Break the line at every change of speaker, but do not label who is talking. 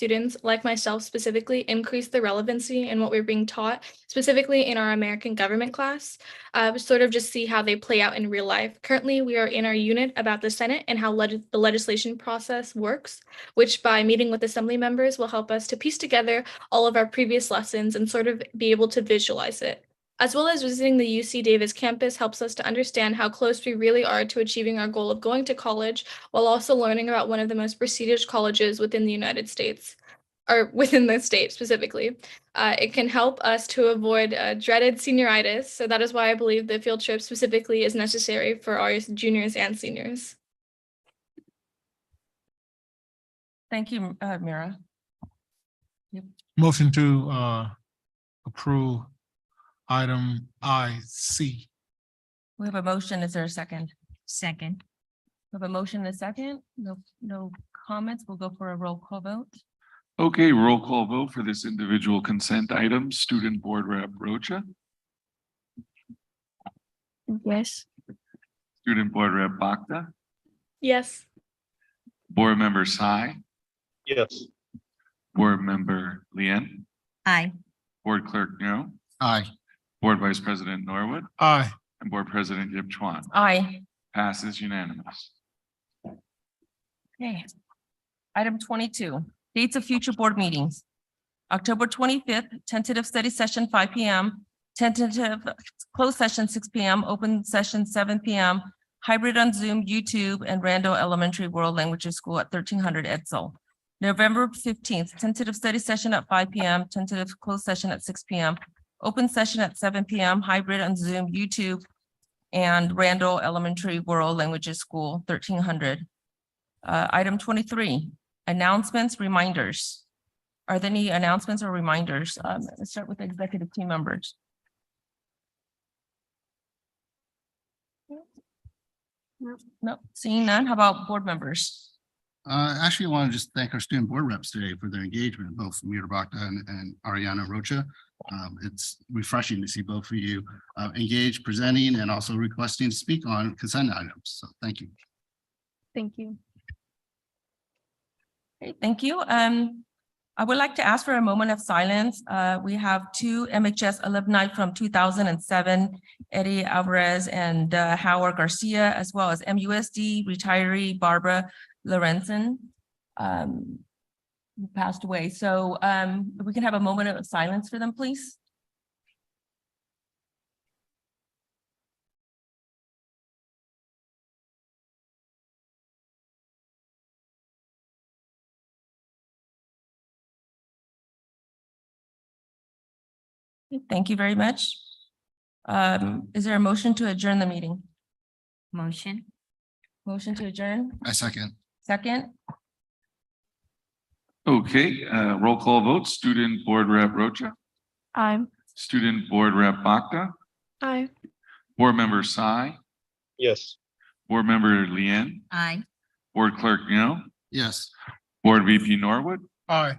students, like myself specifically, increase the relevancy in what we're being taught, specifically in our American government class. Uh, but sort of just see how they play out in real life. Currently, we are in our unit about the Senate and how leg- the legislation process works, which by meeting with assembly members will help us to piece together all of our previous lessons and sort of be able to visualize it. As well as visiting the UC Davis campus helps us to understand how close we really are to achieving our goal of going to college while also learning about one of the most prestigious colleges within the United States or within the state specifically. Uh, it can help us to avoid uh, dreaded senioritis. So that is why I believe the field trip specifically is necessary for our juniors and seniors.
Thank you, uh, Mira.
Motion to uh approve item I C.
We have a motion. Is there a second?
Second,
We have a motion and a second. No, no comments. We'll go for a roll call vote.
Okay, roll call vote for this individual consent item, Student Board Rep Rocha,
Yes.
Student Board Rep Bakta,
Yes.
Board Member Sai,
yes,
Board Member Lien,
aye,
Board Clerk No,
Aye.
Board Vice President Norwood,
Aye.
and Board President Yip Chuan.
Aye.
Passes unanimous.
Okay. Item twenty-two, dates of future board meetings. October twenty-fifth, tentative study session five P M, tentative closed session six P M, open session seven P M, hybrid on Zoom, YouTube, and Randall Elementary World Languages School at thirteen hundred Edsel. November fifteenth, tentative study session at five P M, tentative closed session at six P M, open session at seven P M, hybrid on Zoom, YouTube, and Randall Elementary World Languages School, thirteen hundred. Uh, item twenty-three, announcements, reminders. Are there any announcements or reminders? Um, let's start with executive team members. No, seeing none. How about board members?
Uh, actually, I want to just thank our student board reps today for their engagement, both Mira Bakda and, and Ariana Rocha. Um, it's refreshing to see both of you, uh, engaged, presenting, and also requesting to speak on consent items. So thank you.
Great, thank you. Um, I would like to ask for a moment of silence. Uh, we have two MHS alumni from two thousand and seven, Eddie Alvarez and uh, Howard Garcia, as well as MUSD retiree Barbara Lorenzen. um, who passed away. So, um, if we can have a moment of silence for them, please. Thank you very much. Um, is there a motion to adjourn the meeting?
motion,
Motion to adjourn,
I second.
second?
Okay, uh, roll call vote, Student Board Rep Rocha,
Aye.
Student Board Rep Bakta,
Aye.
Board Member Sai,
yes.
Board Member Lien,
aye.
Board Clerk No,
Yes.
Board VP Norwood,
Aye.